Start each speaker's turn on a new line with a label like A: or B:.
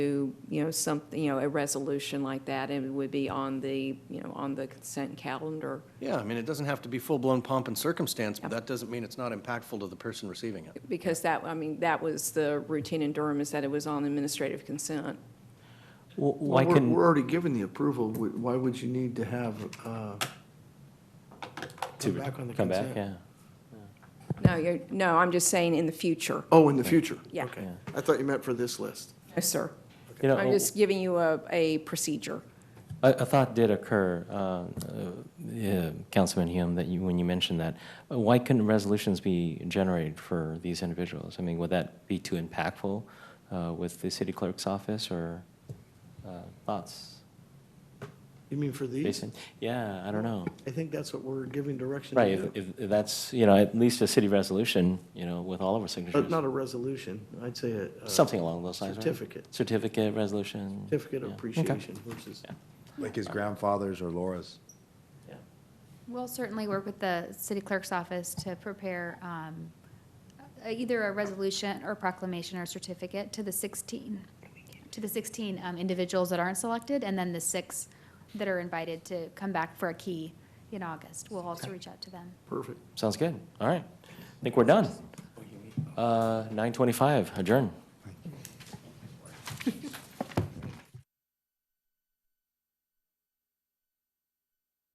A: do, you know, something, you know, a resolution like that, and it would be on the, you know, on the consent calendar.
B: Yeah, I mean, it doesn't have to be full-blown pomp and circumstance, but that doesn't mean it's not impactful to the person receiving it.
A: Because that, I mean, that was the routine in Durham, is that it was on administrative consent.
C: Well, Why
D: Well, we're,
C: can,
D: we're already given the approval, Wh- why would you need to have, uh,
C: to
D: come back on the consent?
C: come back, yeah.
A: No, you're, no, I'm just saying in the future.
D: Oh, in the future?
A: Yeah.
D: Okay, I thought you meant for this list.
A: Yes, sir.
C: You
A: I'm
C: know,
A: just giving you a, a procedure.
C: a, a thought did occur, um, uh, yeah, Councilman Hume, that you, when you mentioned that. Uh, Why couldn't resolutions be generated for these individuals? I mean, would that be too impactful uh, with the city clerk's office or uh, thoughts,
D: You mean for these?
C: Jason? Yeah, I don't know.
D: I think that's what we're giving direction
C: Right,
D: to
C: if,
D: do.
C: if if that's, you know, at least a city resolution, you know, with all of our
D: But
C: signatures.
D: not a resolution, I'd say a. a
C: Something along those lines, right?
D: Certificate.
C: Certificate, resolution.
D: Certificate of
C: yeah. Okay.
D: appreciation versus,
E: Like his grandfather's or Laura's.
C: Yeah.
F: We'll certainly work with the city clerk's office to prepare um, uh, either a resolution or proclamation or certificate to the 16, to the 16 um, individuals that aren't selected, and then the six that are invited to come back for a key in August. We'll also reach out to them.
D: perfect.
C: Sounds good. All right. I think we're done. Uh, 9:25, adjourn.